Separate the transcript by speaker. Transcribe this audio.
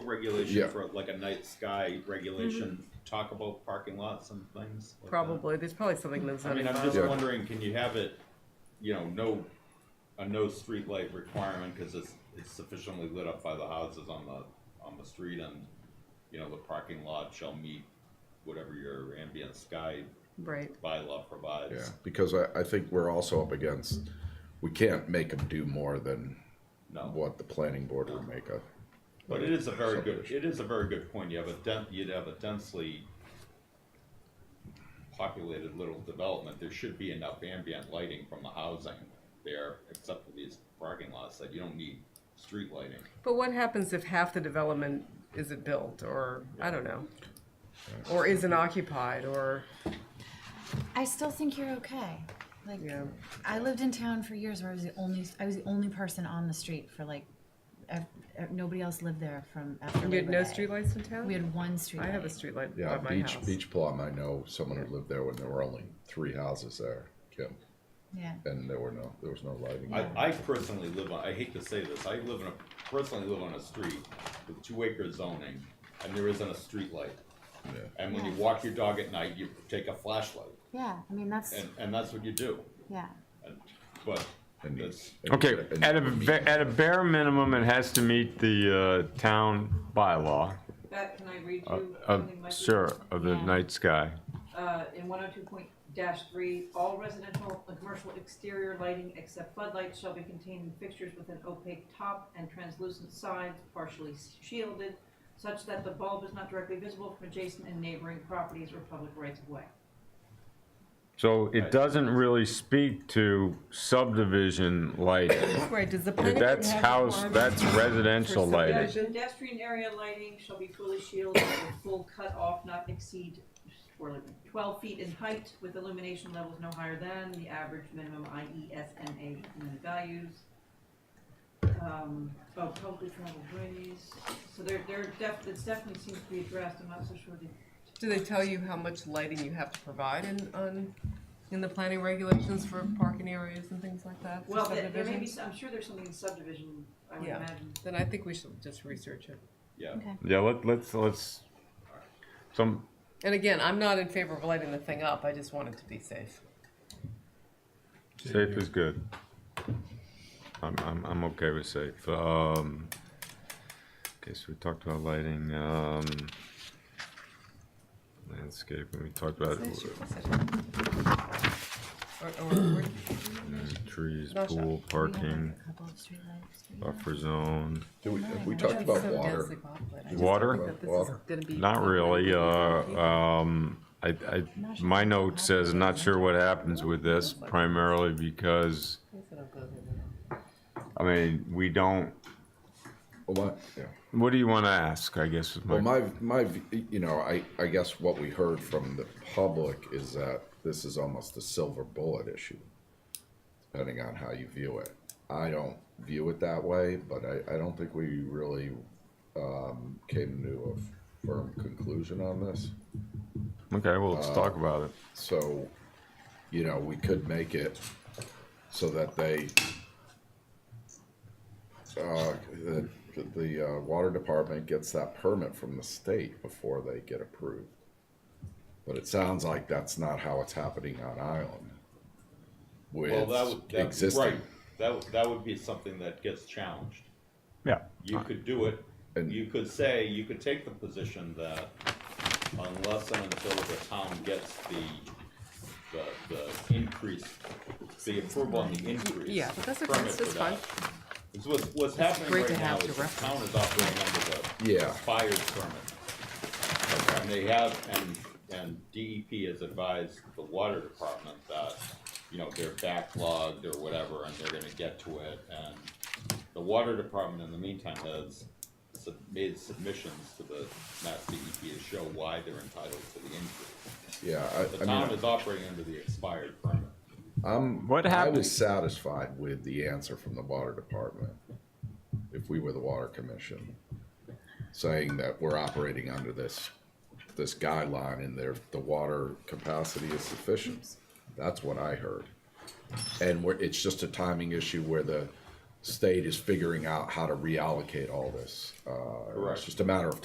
Speaker 1: regulation
Speaker 2: Yeah.
Speaker 1: for like a night sky regulation, talk about parking lots and things? like that?
Speaker 3: Probably, there's probably something that's
Speaker 1: I
Speaker 3: not
Speaker 1: mean, I'm
Speaker 3: involved.
Speaker 1: just
Speaker 2: Yeah.
Speaker 1: wondering, can you have it, you know, no, a no street light requirement, cause it's, it's sufficiently lit up by the houses on the, on the street and, you know, the parking lot shall meet whatever your ambient sky
Speaker 3: Right,
Speaker 1: bylaw provides.
Speaker 2: Yeah, because I, I think we're also up against, we can't make them do more than
Speaker 3: Oh.
Speaker 1: No,
Speaker 2: what the planning board would make of.
Speaker 1: but it is a very good, it is a very good point, you have a den, you'd have a densely populated little development, there should be enough ambient lighting from the housing there, except for these parking lots, that you don't need street lighting.
Speaker 3: but what happens if half the development isn't built, or, I don't know? Or isn't occupied, or,
Speaker 4: I still think you're okay. Like,
Speaker 3: Yeah.
Speaker 4: I lived in town for years where I was the only I was the only person on the street for like, ev- ev- nobody else lived there from after.
Speaker 3: you had
Speaker 4: Labor
Speaker 3: no
Speaker 4: Day.
Speaker 3: streetlights in town?
Speaker 4: We had one street.
Speaker 3: I have a streetlight
Speaker 2: Yeah,
Speaker 3: by my
Speaker 2: Beach,
Speaker 3: house.
Speaker 2: Beach Plum, I know someone who lived there when there were only three houses there, Kim,
Speaker 4: Yeah.
Speaker 2: and there were no, there was no lighting.
Speaker 1: I, I personally live on, I hate to say this, I live in a, personally live on a street with two acre zoning, and there isn't a street light.
Speaker 2: Yeah.
Speaker 1: And when you
Speaker 4: Yeah.
Speaker 1: walk your dog at night, you take a flashlight,
Speaker 4: Yeah. I mean that's
Speaker 1: and, and that's what you do,
Speaker 4: yeah.
Speaker 1: and, but,
Speaker 2: And you-
Speaker 1: that's,
Speaker 2: and you-
Speaker 5: Okay,
Speaker 2: and you
Speaker 5: at a,
Speaker 2: meet-
Speaker 5: ve- at a bare minimum, it has to meet the uh, town bylaw,
Speaker 6: That, can I read
Speaker 5: uh,
Speaker 6: you
Speaker 5: of,
Speaker 6: something? Mike?
Speaker 5: sure, of the
Speaker 4: Yeah.
Speaker 5: night sky.
Speaker 6: Uh, in one oh two point three, all residential and commercial exterior lighting except floodlights shall be contained in fixtures with an opaque top and translucent sides partially shielded, such that the bulb is not directly visible from adjacent and neighboring properties or public rights of way.
Speaker 5: So it doesn't really speak to subdivision lighting.
Speaker 3: Right, does the planning board
Speaker 5: That's
Speaker 3: have
Speaker 5: house,
Speaker 3: requirements
Speaker 5: that's residential
Speaker 3: for
Speaker 5: lighting.
Speaker 3: subdivision?
Speaker 6: Pedestrian area lighting shall be fully shielded with full cutoff not exceed or twelve feet in height with illumination levels no higher than the average minimum E IESMA minimum values. Um, oh, publicly traveled ways, so there, there def, it definitely seems to be addressed, I'm not so sure the
Speaker 3: Do they tell you how much lighting you have to provide in, on, in the planning regulations for parking areas and things like that? for
Speaker 6: Well, there there may be,
Speaker 3: subdivisions?
Speaker 6: some- I'm sure there's something in subdivision, I would
Speaker 3: Yeah.
Speaker 6: imagine.
Speaker 3: Then I think we should just research it.
Speaker 1: yeah.
Speaker 4: Okay.
Speaker 5: Yeah, let, let's, let's, some,
Speaker 3: And again, I'm not in favor of lighting the thing up, I just want it to be safe.
Speaker 5: safe is good. I'm, I'm, I'm okay with safe. Um, okay, so we talked about lighting, um, landscape, and we talked about
Speaker 3: Or, or,
Speaker 5: mm, trees,
Speaker 3: Not sure.
Speaker 5: pool,
Speaker 4: We have
Speaker 5: parking,
Speaker 4: like a couple of streetlights. but yeah.
Speaker 5: buffer zone.
Speaker 2: Do we, have we talked about water?
Speaker 5: Water?
Speaker 2: Water.
Speaker 5: Not really, uh, um, I, I, my note says, not sure what happens with this primarily because, I mean, we don't,
Speaker 2: Well, my- yeah.
Speaker 5: what do you wanna ask, I guess is my
Speaker 2: Well, my, my, v- you know, I, I guess what we heard from the public is that this is almost a silver bullet issue, depending on how you view it. I don't view it that way, but I, I don't think we really, um, came to a firm conclusion on this.
Speaker 5: Okay, well, let's
Speaker 2: uh,
Speaker 5: talk about it.
Speaker 2: So, you know, we could make it so that they, uh, the, the, uh, water department gets that permit from the state before they get approved. But it sounds like that's not how it's happening on Island.
Speaker 1: Well, that would,
Speaker 2: With
Speaker 1: that, right,
Speaker 2: existing,
Speaker 1: that, would- that would be something that gets challenged.
Speaker 5: Yeah.
Speaker 1: You could do it,
Speaker 2: And-
Speaker 1: you could say, you could take the position that unless and until the town gets the, the, the increase, the approval on the increase.
Speaker 3: Yeah, but that's okay,
Speaker 1: permit
Speaker 3: that's
Speaker 1: for
Speaker 3: fine.
Speaker 1: that. It's what's, what's happening
Speaker 3: great to
Speaker 1: right now
Speaker 3: have
Speaker 1: is
Speaker 3: to
Speaker 1: the town is operating under the
Speaker 2: Yeah.
Speaker 1: expired permit. And they have, and, and DEP has advised the water department that, you know, they're backlogged or whatever, and they're gonna get to it, and the water department in the meantime has sub- made submissions to the Mass DEP to show why they're entitled to the increase.
Speaker 2: yeah,
Speaker 1: The
Speaker 2: I, I
Speaker 1: town
Speaker 2: mean,
Speaker 1: is operating under the expired permit.
Speaker 5: What
Speaker 2: I
Speaker 5: happened?
Speaker 2: was satisfied with the answer from the water department, if we were the water commission, saying that we're operating under this, this guideline and their, the water capacity is sufficient. That's what I heard. And we're, it's just a timing issue where the state is figuring out how to reallocate all this. Uh,
Speaker 1: Correct.
Speaker 2: It's just a matter of